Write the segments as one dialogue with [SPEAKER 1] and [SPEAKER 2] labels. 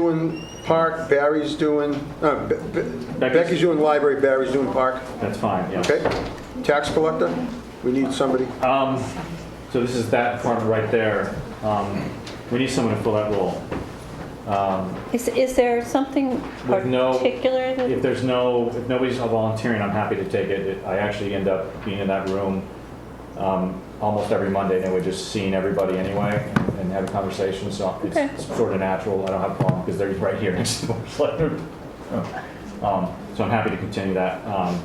[SPEAKER 1] doing park, Barry's doing, uh, Be- Be- Becky's doing library, Barry's doing park,
[SPEAKER 2] That's fine, yeah.
[SPEAKER 1] okay? Tax collector, we need somebody.
[SPEAKER 2] Um, so this is that department right there. Um, we need someone to fill that role. Um,
[SPEAKER 3] Is, is there something
[SPEAKER 2] With no-
[SPEAKER 3] particular
[SPEAKER 2] if
[SPEAKER 3] that,
[SPEAKER 2] there's no, if nobody's volunteering, I'm happy to take it. It- I actually end up being in that room um, almost every Monday, and we're just seeing everybody anyway and having conversations, so it's-
[SPEAKER 3] Okay.
[SPEAKER 2] it's sort of natural. I don't have a problem, because they're right here next to the letter. Um, So I'm happy to continue that. Um,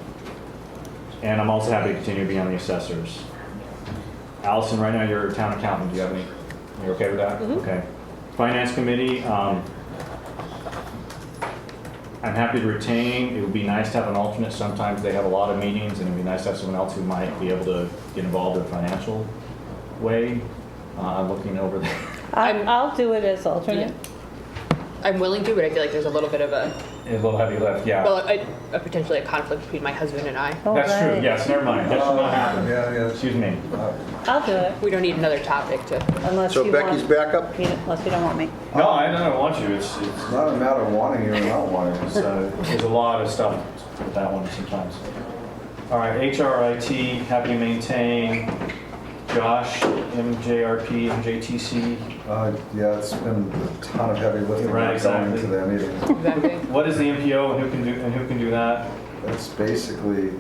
[SPEAKER 2] And I'm also happy to continue to be on the assessors. Allison, right now you're town accountant, do you have any, you okay with that? Okay. Finance committee, um, I'm happy to retain. It would be nice to have an alternate. Sometimes they have a lot of meetings, and it'd be nice to have someone else who might be able to get involved in a financial way. Uh, I'm looking over there.
[SPEAKER 3] I'm- I'll do it as alternate.
[SPEAKER 4] I'm willing to, but I feel like there's a little bit of a,
[SPEAKER 2] It's a little heavy lift, yeah.
[SPEAKER 4] well, a, a potentially a conflict between my husband and I.
[SPEAKER 3] All
[SPEAKER 2] That's true,
[SPEAKER 3] right.
[SPEAKER 2] yes, never mind. That should not happen.
[SPEAKER 5] Yeah, yeah.
[SPEAKER 2] Excuse me.
[SPEAKER 3] I'll do it
[SPEAKER 4] We don't need another topic to,
[SPEAKER 3] unless you
[SPEAKER 1] So
[SPEAKER 3] want.
[SPEAKER 1] Becky's backup,
[SPEAKER 3] you- Unless you don't want me.
[SPEAKER 2] No, I don't want you. It's, it's,
[SPEAKER 5] It's not a matter of wanting it or not wanting it.
[SPEAKER 2] so there's a lot of stuff with that one sometimes. All right, HRIT, happy to maintain. Josh, MJRP, MJTC.
[SPEAKER 5] Uh, Yeah, it's been a ton of heavy lifting
[SPEAKER 2] Right,
[SPEAKER 5] going
[SPEAKER 2] exactly.
[SPEAKER 5] into that meeting.
[SPEAKER 4] exactly.
[SPEAKER 2] What is the MPO and who can do, and who can do that?
[SPEAKER 5] That's basically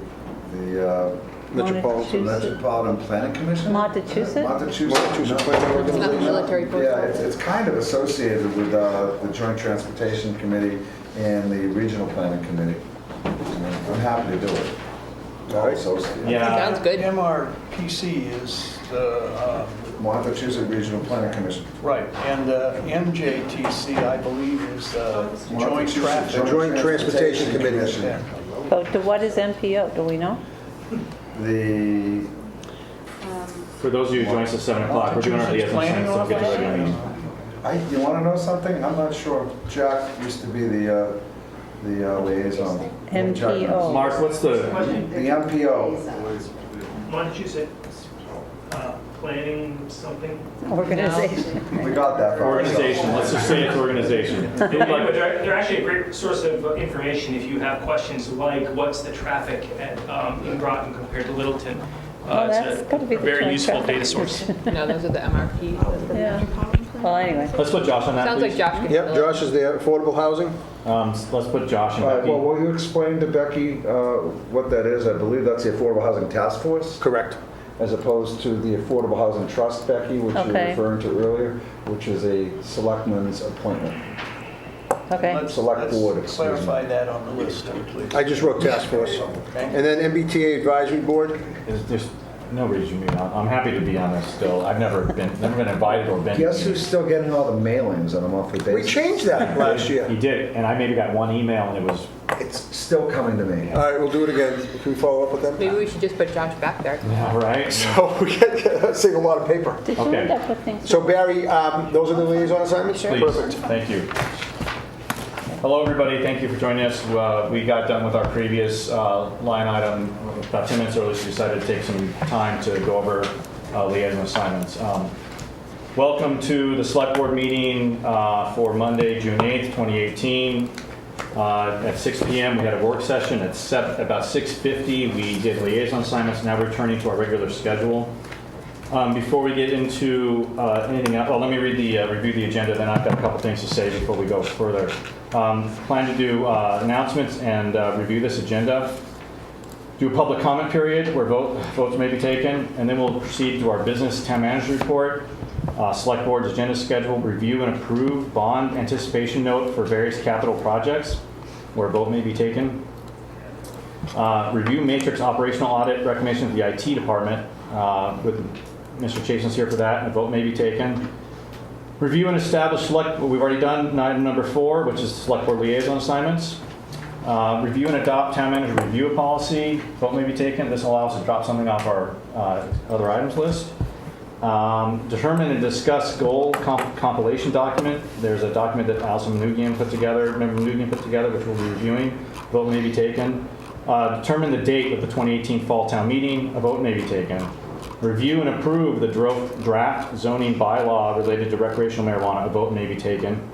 [SPEAKER 5] the uh,
[SPEAKER 1] metropolitan.
[SPEAKER 3] Massachusetts.
[SPEAKER 5] Metropolitan Planning Commission?
[SPEAKER 3] Massachusetts?
[SPEAKER 5] Massachusetts.
[SPEAKER 1] Massachusetts
[SPEAKER 5] no.
[SPEAKER 1] Planning
[SPEAKER 4] It's not the
[SPEAKER 1] Organization.
[SPEAKER 4] military force.
[SPEAKER 5] Yeah, it's, it's kind of associated with uh, the Joint Transportation Committee and the Regional Planning Committee. I mean, I'm happy to do it. All associated.
[SPEAKER 4] Sounds good.
[SPEAKER 6] MRPC is the, uh,
[SPEAKER 5] Massachusetts Regional Planning Commission.
[SPEAKER 6] right, and uh, the MJTC, I believe, is the joint
[SPEAKER 5] Massachusetts
[SPEAKER 6] traffic.
[SPEAKER 1] Joint Transportation Committee.
[SPEAKER 6] Yeah.
[SPEAKER 3] So do- what is MPO, do we know?
[SPEAKER 5] The
[SPEAKER 2] For those of you who join us at 7 o'clock, we're doing our liaison sessions,
[SPEAKER 6] Planning
[SPEAKER 2] so I'll get to regular meeting.
[SPEAKER 5] I, you want to know something? I'm not sure. Jack used to be the, uh, the uh, liaison. Jack knows.
[SPEAKER 3] MPO.
[SPEAKER 2] Mark, what's the,
[SPEAKER 5] The MPO,
[SPEAKER 7] Massachusetts uh, planning something.
[SPEAKER 3] Organization.
[SPEAKER 5] we got that. from-
[SPEAKER 2] organization, let's just say it's organization. Maybe
[SPEAKER 7] Anyway, but
[SPEAKER 2] like-
[SPEAKER 7] They're they're actually a great source of information if you have questions like, what's the traffic at, um, in Groton compared to Littleton?
[SPEAKER 3] Well,
[SPEAKER 7] Uh, it's
[SPEAKER 3] that's
[SPEAKER 7] a-
[SPEAKER 3] gotta be
[SPEAKER 7] a
[SPEAKER 3] the
[SPEAKER 7] Very
[SPEAKER 3] joint
[SPEAKER 7] useful
[SPEAKER 3] traffic
[SPEAKER 7] data source.
[SPEAKER 4] No, those are the MRP.
[SPEAKER 3] Yeah. Well, anyway,
[SPEAKER 2] Let's put Josh on that,
[SPEAKER 4] Sounds
[SPEAKER 2] please.
[SPEAKER 4] like Josh could.
[SPEAKER 1] Yep,
[SPEAKER 4] handle it.
[SPEAKER 1] Josh is there, affordable housing,
[SPEAKER 2] Um, s- Let's put Josh and
[SPEAKER 5] All right, well,
[SPEAKER 2] Becky.
[SPEAKER 5] will you explain to Becky uh, what that is? I believe that's the Affordable Housing Task Force,
[SPEAKER 1] correct.
[SPEAKER 5] as opposed to the Affordable Housing Trust, Becky, which you were
[SPEAKER 3] Okay.
[SPEAKER 5] referring to earlier, which is a selectman's appointment.
[SPEAKER 3] okay.
[SPEAKER 6] Let's-
[SPEAKER 5] Select
[SPEAKER 6] let's
[SPEAKER 5] board, excuse me.
[SPEAKER 6] Clarify that on the list, too, please.
[SPEAKER 1] I just wrote task force. And then MBTA advisory board,
[SPEAKER 2] There's- There's no reason to be on, I'm happy to be on this still. I've never been, never been invited or been.
[SPEAKER 5] Guess who's still getting all the mailings on a monthly
[SPEAKER 1] we
[SPEAKER 5] basis?
[SPEAKER 1] changed that last year.
[SPEAKER 2] He did, and I maybe got one email and it was,
[SPEAKER 5] It's still coming to me.
[SPEAKER 1] All right, we'll do it again, can we follow up with them?
[SPEAKER 4] Maybe we should just put Josh back there.
[SPEAKER 2] all right?
[SPEAKER 1] So we get, save a lot of paper.
[SPEAKER 3] Did you
[SPEAKER 2] Okay.
[SPEAKER 3] end up with things?
[SPEAKER 1] So Barry, um, those are the liaison assignments?
[SPEAKER 2] Please,
[SPEAKER 1] Perfect.
[SPEAKER 2] thank you. Hello, everybody, thank you for joining us. Uh, We got done with our previous uh, line item about 10 minutes early, so we decided to take some time to go over uh, liaison assignments. Um, Welcome to the Select Board meeting uh, for Monday, June 8th, 2018. Uh, At 6 PM, we had a work session. At sev- about 6:50, we did liaison assignments, now returning to our regular schedule. Um, Before we get into uh, anything else, well, let me read the, uh, review the agenda, then I've got a couple things to say before we go further. Um, Plan to do uh, announcements and uh, review this agenda. Do a public comment period where vote- votes may be taken, and then we'll proceed to our business town manager report, uh, select board's agenda schedule, review and approve bond anticipation note for various capital projects where a vote may be taken. Uh, Review matrix operational audit recommendation of the IT department, uh, with Mr. Chasen's here for that, and a vote may be taken. Review and establish select, well, we've already done item number four, which is select board liaison assignments. Uh, Review and adopt town manager review policy, vote may be taken, this allows us to drop something off our uh, other items list. Um, Determine and discuss goal comp- compilation document, there's a document that Allison Manugian put together, member Manugian put together, which we'll be reviewing, vote may be taken. Uh, Determine the date of the 2018 Fall Town Meeting, a vote may be taken. Review and approve the dro- draft zoning bylaw related to recreational marijuana, a vote may be taken.